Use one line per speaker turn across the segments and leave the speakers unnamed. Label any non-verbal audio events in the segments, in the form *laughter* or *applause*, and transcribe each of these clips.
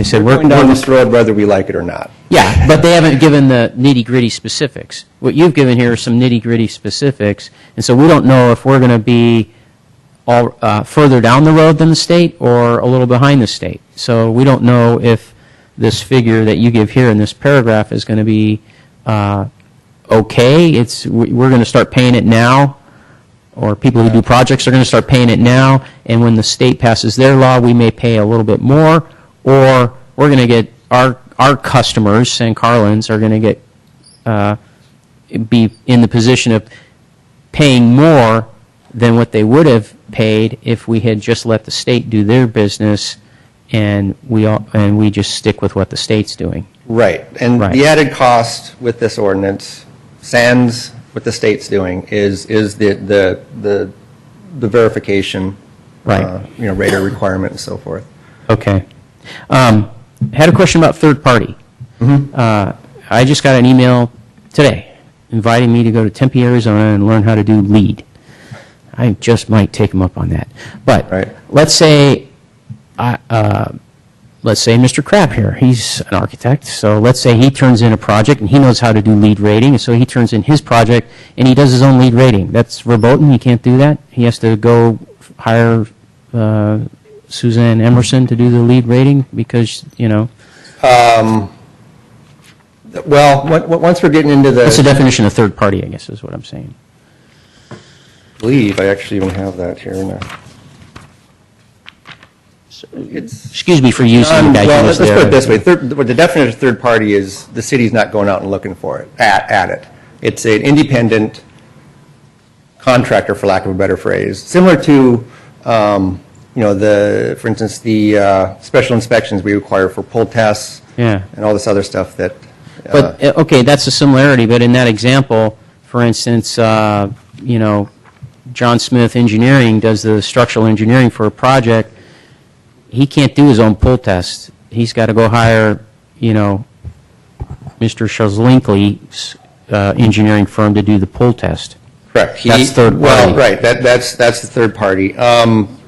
They said,
We're
we're,
going down
we're-
this road whether we like it or not.
*laughs* yeah, but they haven't given the nitty-gritty specifics. What you've given here are some nitty-gritty specifics, and so we don't know if we're going to be all, uh, further down the road than the state or a little behind the state. So we don't know if this figure that you give here in this paragraph is going to be, uh, okay. It's, we- we're going to start paying it now, or people who do projects are going to start paying it now, and when the state passes their law, we may pay a little bit more, or we're going to get, our, our customers, San Carlins, are going to get, uh, be in the position of paying more than what they would have paid if we had just let the state do their business, and we all, and we just stick with what the state's doing.
Right. And
Right.
the added cost with this ordinance, sans what the state's doing, is, is the, the, the the verification.
Right.
uh, You know, radar requirement and so forth.
Okay. Um, had a question about third party. Uh, I just got an email today inviting me to go to Tempe, Arizona and learn how to do lead. I just might take them up on that. But
Right.
let's say, I, uh, let's say Mr. Crab here, he's an architect, so let's say he turns in a project and he knows how to do lead rating, and so he turns in his project and he does his own lead rating. That's verboten, he can't do that. He has to go hire uh, Suzanne Emerson to do the lead rating because, you know,
Well, on- on- once we're getting into
that's the
the,
definition of third party, I guess, is what I'm saying.
leave, I actually even have that here in there.
Excuse me for using the
Um,
guy
well,
who was
let's let's
there.
put it this way, third, what the definition of third party is, the city's not going out and looking for it, at, at it. It's an independent contractor, for lack of a better phrase, similar to, um, you know, the, for instance, the, uh, special inspections we require for pull tests.
Yeah.
And all this other stuff that, uh,
But, uh, okay, that's a similarity, but in that example, for instance, uh, you know, John Smith Engineering does the structural engineering for a project. He can't do his own pull test. He's got to go hire, you know, Mr. Shazlinkley's uh, engineering firm to do the pull test.
correct. He-
That's third
Well,
party.
right, that, that's, that's the third party. Um,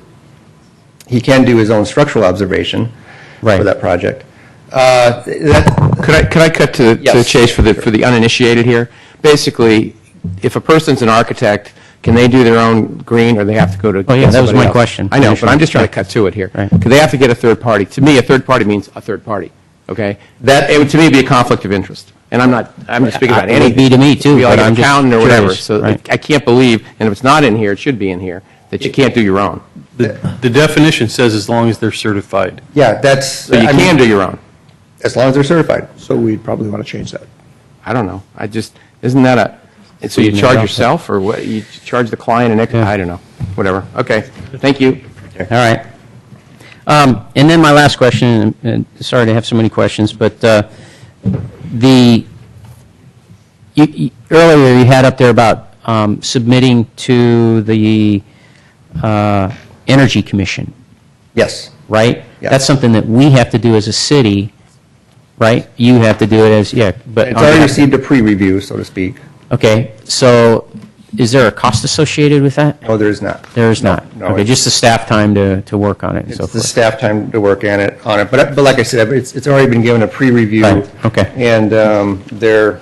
he can do his own structural observation for
Right.
that project. Uh, that,
Could I, could I cut to to the
Yes.
chase for the, for the uninitiated here? Basically, if a person's an architect, can they do their own green, or they have to go to?
Oh, yeah, that was
somebody
my
else?
question,
I know, but
initially.
I'm just trying to cut to it here.
Right.
Because they have to get a third party. To me, a third party means a third party, okay? That, it would, to me, be a conflict of interest. And I'm not, I'm not speaking about
It would
anything.
be to me, too,
Could be like
but
an
I'm just
accountant or whatever.
curious,
So
right.
I can't believe, and if it's not in here, it should be in here, that you can't do your own.
The the definition says as long as they're certified.
yeah, that's.
So you
I mean-
can do your own.
as long as they're certified.
So we'd probably want to change that.
I don't know. I just, isn't that a, and so you
Freedom of
charge
contract.
yourself, or what, you charge the client an extra,
Yeah.
I don't know, whatever. Okay, thank you.
All right. Um, And then my last question, and and sorry to have so many questions, but uh, the, you- you- earlier you had up there about um, submitting to the uh, Energy Commission,
Yes.
right?
Yeah.
That's something that we have to do as a city, right? You have to do it as, yeah, but.
It's already received a pre-review, so to speak.
Okay, so is there a cost associated with that?
No, there is not.
There is not.
no,
Okay,
it's-
just the staff time to, to work on it and so
It's the
forth.
staff time to work on it, on it. But, but like I said, it's, it's already been given a pre-review.
Right, okay.
And um, they're,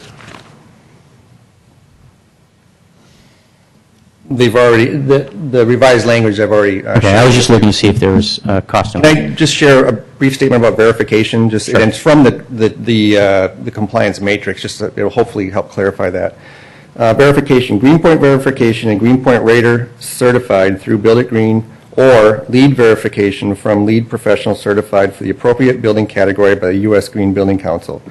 they've already, the the revised language I've already. uh,
Okay, I was just looking to see if there was uh, cost.
Can I just share a brief statement about verification? Just, and it's from the, the, the uh, the compliance matrix, just, so it'll hopefully help clarify that. Uh, Verification, Greenpoint verification and Greenpoint Raider certified through Build It Green, or lead verification from lead professional certified for the appropriate building category by the U.S. Green Building Council.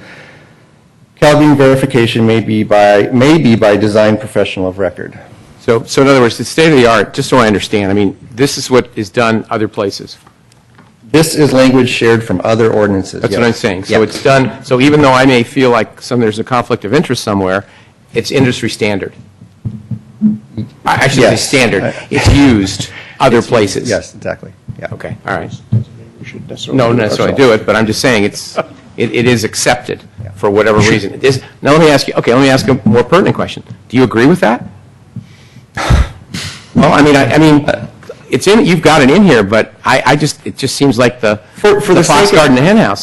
CalGreen verification may be by, may be by design professional of record.
So, so in other words, it's state of the art, just so I understand, I mean, this is what is done other places.
This is language shared from other ordinances.
That's what
yes.
I'm saying. So
Yeah.
it's done, so even though I may feel like some, there's a conflict of interest somewhere, it's industry standard. I I shouldn't say
Yes.
standard, it's used other places.
Yes, exactly, yeah.
Okay, all right.
We should necessarily.
No, not necessarily do it, but I'm just saying, it's, it it is accepted for whatever reason. It is, now let me ask you, okay, let me ask a more pertinent question. Do you agree with that? Well, I mean, I, I mean, it's in, you've got it in here, but I, I just, it just seems like the,
For- for the
the fox
sake of-
guard in the hen house.